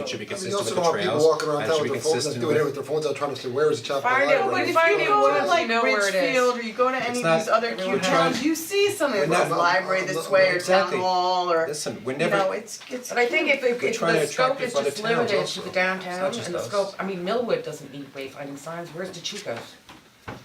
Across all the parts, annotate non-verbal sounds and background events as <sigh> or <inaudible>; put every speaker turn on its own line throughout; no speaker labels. It should be
I mean, you
consistent
also
with
don't
the
want people
trails,
walking around
and it
town
should be
with their phones, like
consistent
doing it with
with,
their phones, out trying to steal, where is the chapel
Find it,
library?
but if
Find
you
it
go
once
to
you
like
know where it is.
Richfield or you go to
It's
any of
not-
these other cute
everyone
towns,
has-
you see something
We're
that's
not-
library this
not-
way or town
exactly.
hall or,
listen, we're
you know,
never,
it's, it's
But I think if if
We're
if
trying to
the
attract
scope is
people other
just
towns
limited to
also.
the
It's
downtown
not just
and the
us.
scope, I mean, Millwood doesn't need wayfinding signs, where's the Chico's?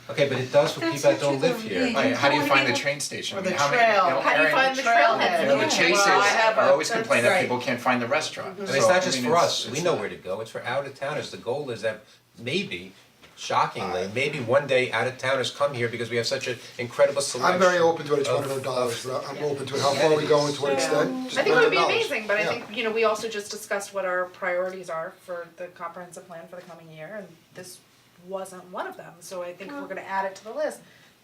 okay, but it does for people that don't live here.
Like, how do you find the train station?
or
I mean,
the
how many-
trail.
you know,
How do you
Aaron,
find the
you
trailhead?
know, the
Yeah.
chases
Well, I have
are
a-
always complaining that
right.
people can't find the restaurant.
And it's not just for us, we
it's
know
not-
where to go, it's for out of towners, the goal is that maybe, shockingly, maybe one day out of towners come here because we have such an incredible selection.
I'm very open to it, it's
of-
one hundred dollars, but I'm open to it, how
of
far are we going,
amenities.
to what extent, just
I think it would be
$100.
amazing, but I
Yeah.
think, you know, we also just discussed what our priorities are for the comprehensive plan for the coming year, and this wasn't one of them, so I think if we're gonna add it to the list,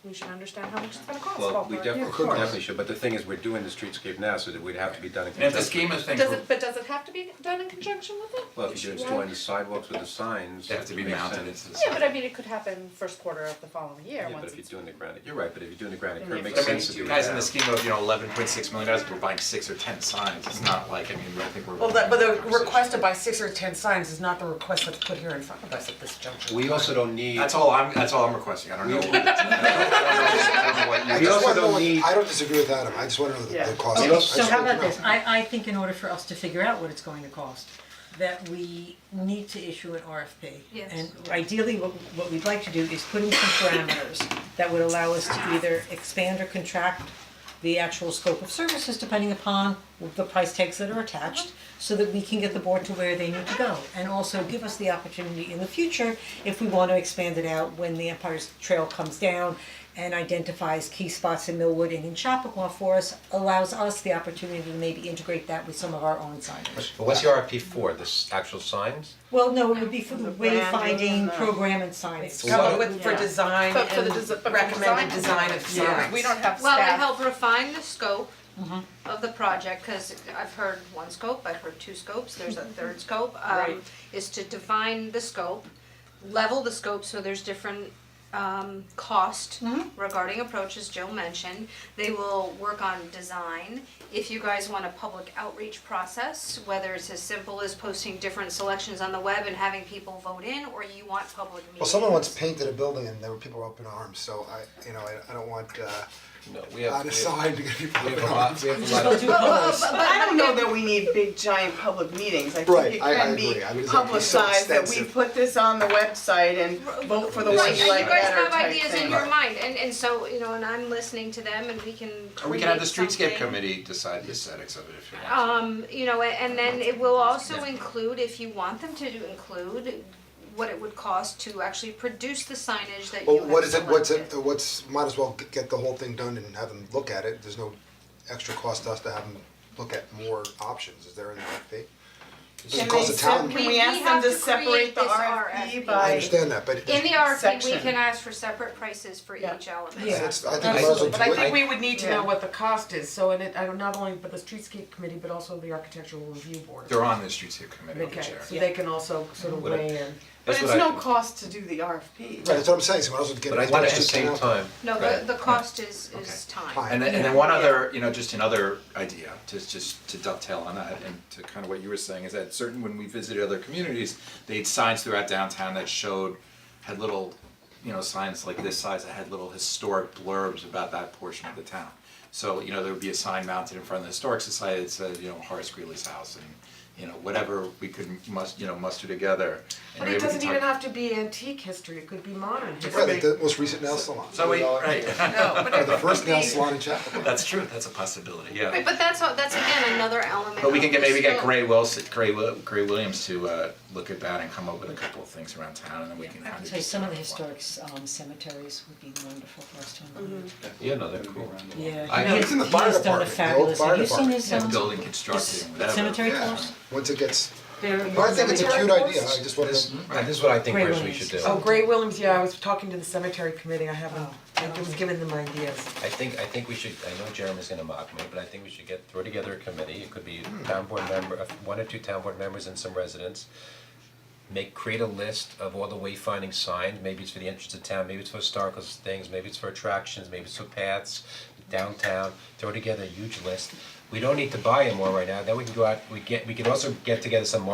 we should understand how much it's gonna cost.
Well, we
ballpark.
definitely, definitely should, but the thing is, we're doing the streetscape now, so that we'd have to be done in
And if the
conjunction.
scheme of things,
Does it, but does it have to be done in conjunction with it?
Well, if you're
Yeah.
doing the sidewalks with the signs,
they have to be
it makes
mounted
sense.
into the.
Yeah, but I mean, it could happen first quarter of the following year,
Yeah, but
once
if you're
it's,
doing the granite, you're right, but if you're doing the granite curb, it
I
makes
mean,
sense to do
you
it
guys in
now.
the scheme of, you know, eleven point six million dollars, we're buying six or ten signs, it's not like, I mean, I think we're.
Well, that, but the
Conversation.
request to buy six or ten signs is not the request that's put here in front of us at this juncture.
We also don't need,
That's all I'm, that's all I'm requesting, I don't know. what- I don't know what you-
I
We
just
also
wanna know
don't
what-
need-
I don't disagree with Adam, I just wanna know the
Yeah.
the cost.
Okay,
I
so
just
how
want to
about
know.
this, I I think in order for us to figure out what it's going to cost, that we need to issue an RFP.
Yes.
And ideally, what what we'd like to do is put in some parameters that would allow us to either expand or contract the actual scope of services depending upon the price tags that are attached, so that we can get the board to where they need to go. And also give us the opportunity in the future, if we wanna expand it out, when the Empire's Trail comes down and identifies key spots in Millwood and in Chappaqua for us, allows us the opportunity to maybe integrate that with some of our own signage.
But what's the RFP for, this actual signs?
Well, no, it would be for the
branding,
wayfinding
the-
program and signage.
Come up
with for
Yeah.
design
But for the desi- but for
and recommended
design.
design of signs.
we don't have staff.
Well, it helped refine the scope of the project, cause I've heard one scope, I've heard two scopes, there's a
<laughs>
third scope, um,
Right.
is to define the scope, level the scope, so there's different um cost
Mm-hmm.
regarding approaches Jill mentioned. They will work on design, if you guys want a public outreach process, whether it's as simple as posting different selections on the web and having people vote in, or you want public meetings.
Well, someone once painted a building and there were people up in arms, so I, you know, I I don't want uh,
No, we
on a sign to get people
We
up
have
in
a lot,
arms.
we have a lot of.
But I don't know that we need big giant public meetings, I
Right,
think it
I- I
can be
agree. I mean, it's not- it's so
publicized that we
extensive.
put this on the website and vote for the one
Right,
you
and you
like
guys
better
have
type
ideas in
thing.
your mind, and and so, you know, and I'm listening to them and we can
Or we can have the
create
streetscape
something.
committee decide the aesthetics of it if you want.
Um, you know, and then it will also include, if you want them to include, what it would cost to actually produce the signage that you
Well,
have
what is it, what's it,
selected.
what's, might as well g- get the whole thing done and have them look at it, there's no extra cost to us to have them look at more options, is there an RFP? Does it cost the town?
Can
We-
we
we
ask them
have
to
to
separate
create
the
this
RFP
RFP.
by?
I understand that, but it-
In the RFP, we
Section.
can ask for separate prices for
Yeah.
each element.
Yeah.
it's, I think might as well do it.
But I think we would need to
Yeah.
know what the cost is, so in it, I don't, not only, but the streetscape committee, but also the architectural review board.
They're on the streetscape committee,
Okay,
Chair.
so they can also sort of
Would it-
weigh in.
But
That's
it's
what I
no
do.
cost to do the RFP.
Right, that's what I'm saying, so might as well get
But
it
I
done,
think at
it's
the
just
same
town.
time.
No,
Right.
the the cost is is
Fine.
time.
And then, and then one other, you know, just another idea, to just to dovetail on that and to kind of what you were saying, is that certain, when we visited other communities, they had signs throughout downtown that showed, had little, you know, signs like this size that had little historic blurbs about that portion of the town. So, you know, there would be a sign mounted in front of the Historic Society that said, you know, Horace Greeley's house and, you know, whatever we could must, you know, muster together. and
But
maybe we
it
could
doesn't
talk-
even have to be antique history, it could be modern
Right,
history.
like the most recent nail salon.
So we,
$100.
right, <laughs>
No, but
Or the first nail salon in Chapel.
that's true, that's a possibility, yeah.
Right, but that's, all- that's again another element
But we
of
can get,
the
maybe get
scope.
Gray Wilson, Gray Wil- Gray Williams to uh look at that and come up with a couple of things around town and then we can kind of.
So some of the
decide what
historic um cemeteries would be wonderful for us to
Mm-hmm.
include.
Yeah, no, they're cool.
Yeah,
I-
he
It's
in the
has- he
fire
has
department,
done a
the old
fabulous,
fire
have you seen
department.
his
we
um,
want. And building
his
constructing, whatever.
cemetery
Yeah,
course?
once it gets,
They're-
but I think it's a cute idea, I just wanna.
Hmm?
Right, this is what I think
Great
personally we
ones.
should do.
Oh, Gray Williams, yeah, I was talking to the cemetery committee, I haven't, I was giving them ideas.
I think, I think we should, I know Jeremy's gonna mock me, but I think we should get, throw together a committee, it could be
Hmm.
town board member, uh, one or two town board members and some residents. Make, create a list of all the wayfinding signs, maybe it's for the entrance of town, maybe it's for historical things, maybe it's for attractions, maybe it's for paths, downtown, throw together a huge list. We don't need to buy them all right now, then we can go out, we get, we can also get together some marketing